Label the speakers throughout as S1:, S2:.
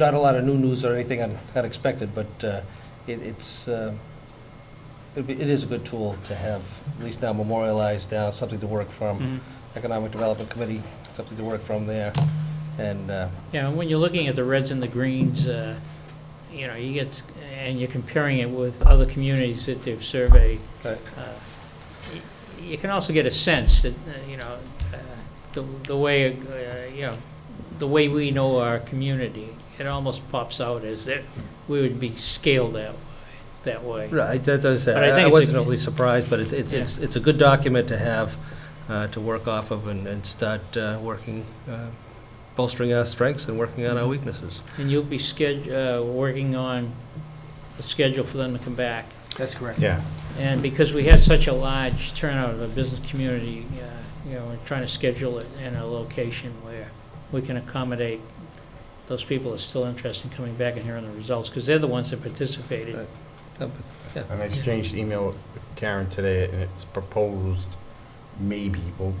S1: Not a lot of new news or anything un- unexpected, but uh, it- it's, uh, it'd be- it is a good tool to have, at least now memorialized now, something to work
S2: Hmm.
S1: from.
S2: Mm-hmm.
S1: Economic Development Committee, something to work from there. And uh,
S2: Yeah, and when you're looking at the reds and the greens, uh, you know, you get, and you're comparing it with other communities that they've surveyed,
S1: Right.
S2: uh, y- you can also get a sense that, uh, you know, uh, the the way, uh, you know, the way we know our community, it almost pops out as that we would be scaled that, that way.
S1: Right, that's what I said.
S2: But I think
S1: I- I
S2: it's a-
S1: wasn't overly surprised, but it's, it's, it's it's a good document to have, uh, to work off of and, and start uh, working, uh, bolstering our strengths and working on our
S2: Hmm.
S1: weaknesses.
S2: And you'll be sched, uh, working on the schedule for them to come back.
S3: That's correct.
S4: Yeah,
S2: And because we had such a large turnout of the business community, uh, you know, we're trying to schedule it in a location where we can accommodate those people that are still interested in coming back and hearing the results, because they're the ones that participated.
S1: Right. Uh, but-
S4: and I exchanged email with Karen today, and it's proposed maybe well,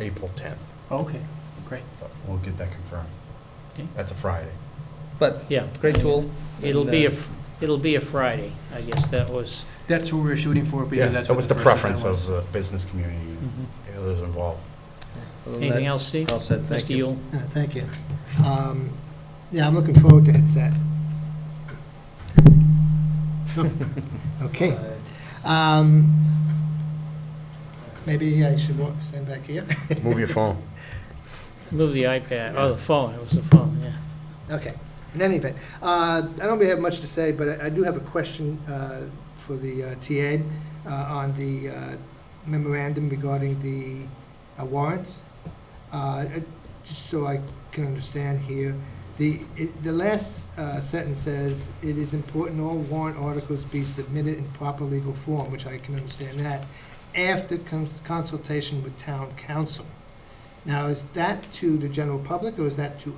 S4: April 10th,
S3: Okay, great.
S4: but we'll get that confirmed.
S2: Okay.
S4: That's a Friday.
S1: But,
S2: Yeah.
S1: great tool.
S2: It'll
S1: and,
S2: be a,
S1: uh,
S2: it'll be a Friday, I guess that was,
S3: That's what we were shooting for because
S4: Yeah,
S3: that's
S4: so
S3: what
S4: it's
S3: the
S4: the
S3: first one
S4: preference of
S3: was.
S4: the business community and others involved.
S1: other than
S2: anything
S1: Mm-hmm. that,
S2: else, Steve?
S1: All set, thank
S2: Mr.
S1: you.
S2: Yule?
S5: Uh, Thank you. Um, Yeah, I'm looking forward to it, set. Okay. Um, Maybe I should wa- stand back here?
S4: Move your phone.
S2: Move the iPad, oh, the phone, it was the phone, yeah.
S5: Okay, in any event, uh, I don't really have much to say, but I- I do have a question uh, for the uh, TA uh, on the uh, memorandum regarding the uh, warrants. Uh, I- Just so I can understand here, the, it- the last uh, sentence says, "It is important all warrant articles be submitted in proper legal form," which I can understand that, after cons- consultation with town council. Now, is that to the general public, or is that to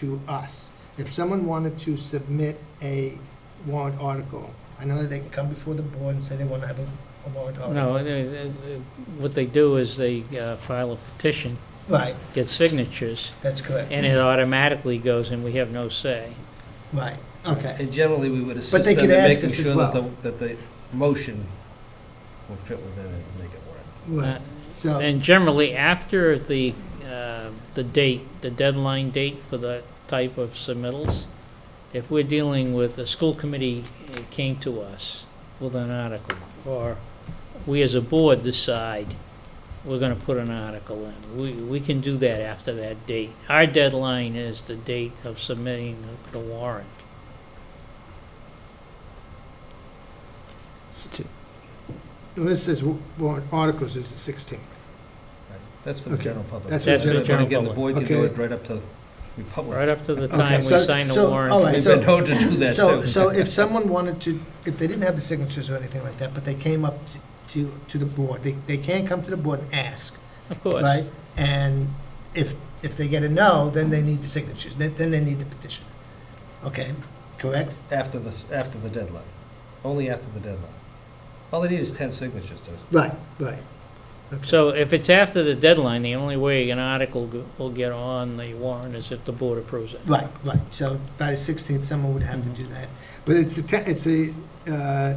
S5: to us. If someone wanted to submit a warrant article, I know that they can come before the board and say they want to have a a warrant
S1: Oh,
S5: article.
S2: No, it- it- it- what they do is they uh, file a petition,
S5: Right,
S2: get signatures,
S5: that's correct.
S2: and it automatically goes, and we have no say.
S5: Right, okay.
S1: And generally, we would assist
S5: But they
S1: them in
S5: could ask
S1: making
S5: us as
S1: sure that the, that the motion would fit within it and make it work.
S2: uh,
S5: Right. So,
S2: And generally, after the, uh, the date, the deadline date for the type of submittals, if we're dealing with, the school committee uh, came to us with an article, or we as a board decide we're gonna put an article in, we, we can do that after that date. Our deadline is the date of submitting the warrant.
S5: this is wa- warrant articles is the 16th.
S1: Right. That's for the
S5: Okay.
S1: general public.
S5: That's for That's
S2: the
S1: But
S2: general
S1: Again, the board can do
S5: public.
S1: it right up to we publish.
S2: Right up to the
S5: Okay,
S2: time we
S5: so-
S2: sign the
S5: so,
S2: warrant.
S5: all right,
S1: We've
S5: so-
S1: been known to do that,
S5: So,
S1: too.
S5: so if someone wanted to, if they didn't have the signatures or anything like that, but they came up to- to, to the board, they, they can come to the board and ask,
S2: Of course.
S5: right? And if, if they get a no, then they need the signatures, then then they need the petition. Okay, correct?
S1: After the, s- after the deadline, only after the deadline. All they need is 10 signatures to
S5: Right, right.
S2: So if it's after the deadline, the only way an article go- will get on the warrant is if the board approves it.
S5: Right, right, so by the 16th, someone would have to do that. But it's a, ta- it's a, uh,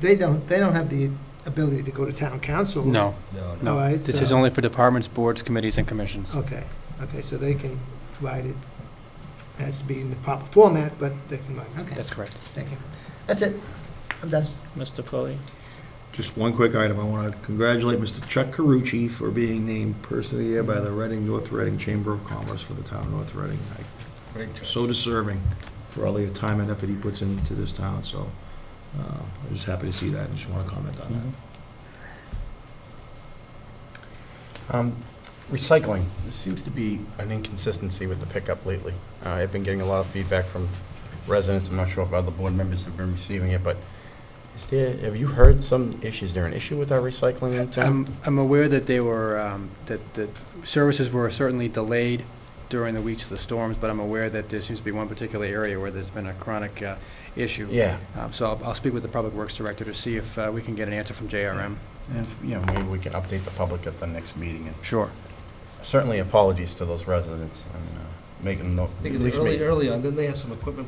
S5: they don't, they don't have the ability to go to town council.
S3: No,
S1: No, no.
S5: All
S3: no.
S5: right,
S3: This is
S5: so-
S3: only for departments, boards, committees, and commissions.
S5: Okay, okay, so they can write it, has to be in the proper format, but they can write, okay,
S3: That's correct.
S5: thank you. That's it, I'm done.
S2: Mr. Foley?
S6: Just one quick item. I want to congratulate Mr. Chuck Carucci for being named Person of the Year by the Reading, North Reading Chamber of Commerce for the town of North Reading. I-
S1: Great choice.
S6: So deserving for all the time and effort he puts into this town, so uh, I'm just happy to see that and just want to comment on that.
S4: Um, Recycling, there seems to be an inconsistency with the pickup lately. Uh, I've been getting a lot of feedback from residents, I'm not sure if other board members have been receiving it, but is there, have you heard some issues, is there an issue with our recycling in town?
S5: Um,
S3: I'm, I'm aware that they were, um, that the services were certainly delayed during the weeks of the storms, but I'm aware that there seems to be one particular area where there's been a chronic uh, issue.
S4: Yeah,
S3: Um, So I'll, I'll speak with the Public Works Director to see if uh, we can get an answer from JRM.
S4: and, you know, maybe we can update the public at the next meeting, and
S3: Sure.
S4: certainly apologies to those residents, and, uh, making,
S1: I
S4: no- at
S1: think
S4: least make.
S1: early, early on, didn't they have some equipment